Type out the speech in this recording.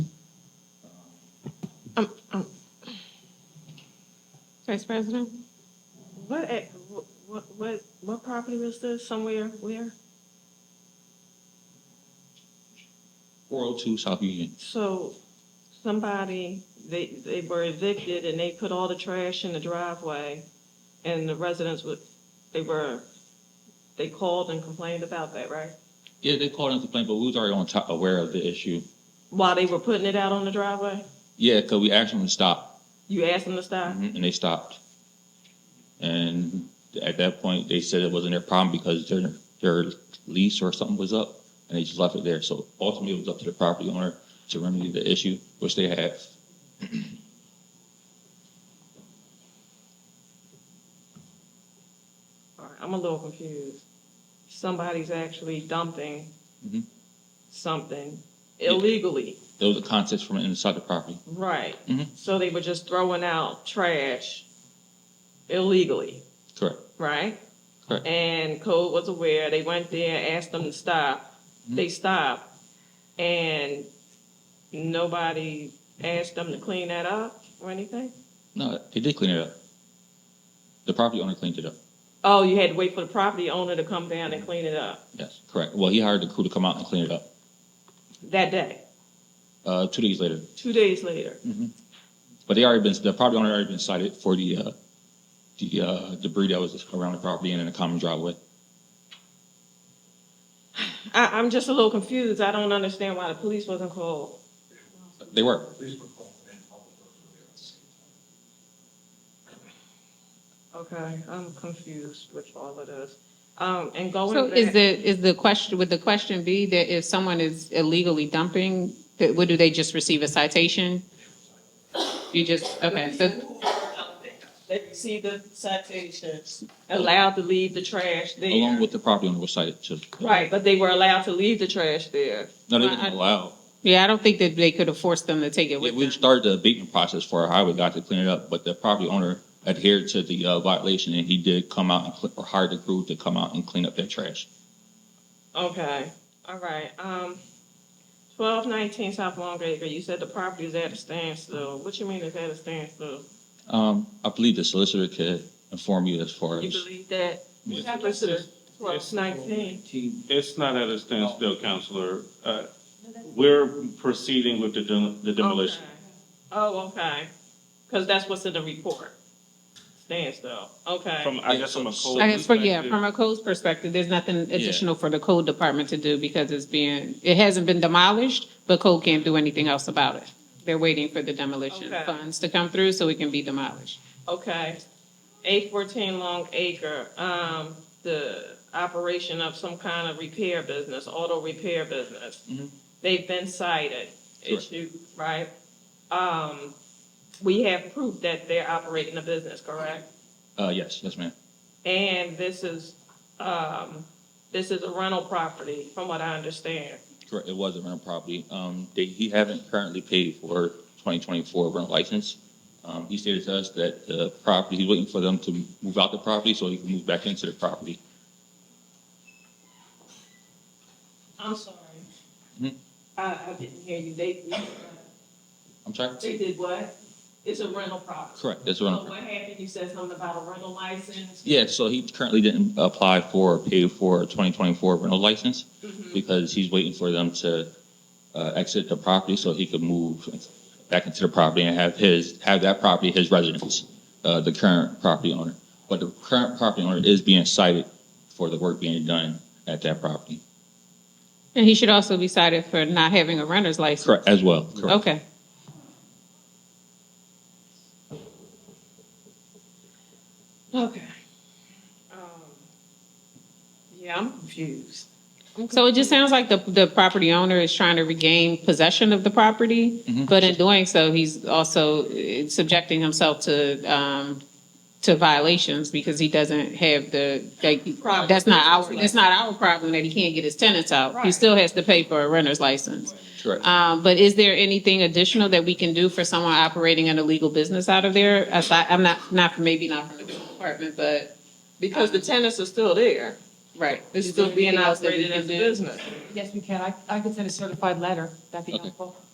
Um, um. Vice President? What, a- wh- what, what, what property was this? Somewhere, where? 402 South Union. So somebody, they, they were evicted and they put all the trash in the driveway and the residents would, they were, they called and complained about that, right? Yeah, they called and complained, but we was already on top, aware of the issue. While they were putting it out on the driveway? Yeah, because we asked them to stop, You asked them to stop? and they stopped. And at that point, they said it wasn't their problem because their, their lease or something was up, and they just left it there. So ultimately, it was up to the property owner to remedy the issue, which they have. All right, I'm a little confused. Somebody's actually dumping Mhm. something Yeah. illegally. There was a contest from inside the property. Right. Mhm. So they were just throwing out trash illegally, Correct. right? Correct. And Code was aware. They went there, asked them to stop. They stopped, and nobody asked them to clean that up or anything. No, they did clean it up. The property owner cleaned it up. Oh, you had to wait for the property owner to come down and clean it up Yes, correct. Well, he hired the crew to come out and clean it up. that day, Uh, two days later, two days later. But they already been, the property owner already been cited for the, uh, the, uh, debris that was around the property and in the common driveway. I, I'm just a little confused. I don't understand why the police wasn't called. They were. Please were called in public works earlier at the same time. Okay, I'm confused with all of this. Um, and going So back, is the, is the question, would the question be that if someone is illegally dumping, that, would, do they just receive a citation? You just, okay, so, they received the citations, allowed to leave the trash there. Along with the property owner was cited uh, too. right, but they were allowed to leave the trash there. No, they didn't allow. yeah, I don't think that they could have forced them to take it with We them. started the abatement process for our highway guy to clean it up, but the property owner adhered to the, uh, violation and he did come out and, cl- or hired the crew to come out and clean up that trash. Okay, all right. Um, twelve nineteen South Long Acre. You said the property is at a standstill. What you mean it's at a standstill? Um, I believe the solicitor could inform you as far You as, believe that? Yes. Twelve nineteen. It's not at a standstill, Counselor. Uh, We're proceeding with the dem- the demolition. Oh, okay. Because that's what's in the report. Standstill. Okay. From, I guess from a code I guess, for- yeah, perspective, from a code's perspective, there's nothing additional for the code department to do because it's being, it hasn't been demolished, but code can't do anything else about it. They're waiting for the demolition Okay. funds to come through so it can be demolished. Okay. Eight fourteen Long Acre, um, the operation of some kind of repair business, auto repair business. They've been cited, Correct. issue, right? Um, we have proof that they're operating a business, correct? uh, yes, yes, ma'am. And this is, um, this is a rental property, from what I understand. Correct, it was a rental property. Um, they, he haven't currently paid for twenty twenty-four rental license. Um, he stated to us that the property, he's waiting for them to move out the property so he can move back into the property. I'm sorry. Mhm. I, I didn't hear you. They, I'm sorry? they did what? It's a rental property. Correct, that's a So rental. what property. happened, you said something about a rental license? Yeah, so he currently didn't apply for or pay for a twenty twenty-four rental license because he's waiting for them to, uh, exit the property so he could move back into the property and have his, have that property his residence, uh, the current property owner. But the current property owner is being cited for the work being done at that property. And he should also be cited for not having a renter's license. Correct, as well, correct. Okay. Okay. Um, Yeah, I'm confused. So it just sounds like the, the property owner is trying to regain possession of the property, but in doing so, he's also eh, subjecting himself to, um, to violations because he doesn't have the, like, Property. that's not our, that's not our problem that he can't get his tenants out. He Right. still has to pay for a renter's license. Correct. Um, but is there anything additional that we can do for someone operating an illegal business out of there? Aside, I'm not, not, maybe not from the department, but, Because the tenants are still there. right. It's still being operated as a business. Yes, we can. I, I can send a certified letter. That'd be Okay. helpful.